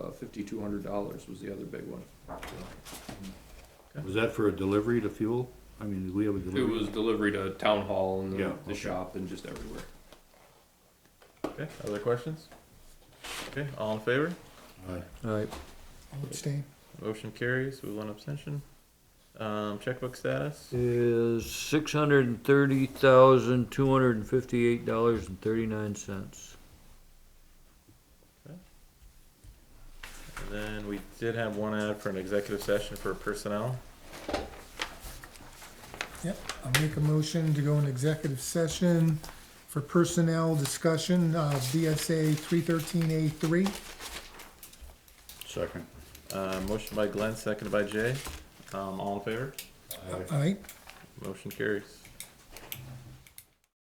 uh, fifty-two hundred dollars was the other big one. Was that for a delivery to fuel? I mean, did we have a It delivery? was delivery to town hall and Yeah, the, okay. the shop and just everywhere. Okay, other questions? Okay, all in favor? Aye. Alright. Abstain. Motion carries with one abstention. Um, checkbook status? is six hundred and thirty thousand, two hundred and fifty-eight dollars and thirty-nine cents. And Then we did have one ad for an executive session for personnel. Yep, I'll make a motion to go in executive session for personnel discussion, uh, BSA three thirteen A three. Second. Uh, motion by Glenn, seconded by Jay. Um, all in favor? All right, Motion carries.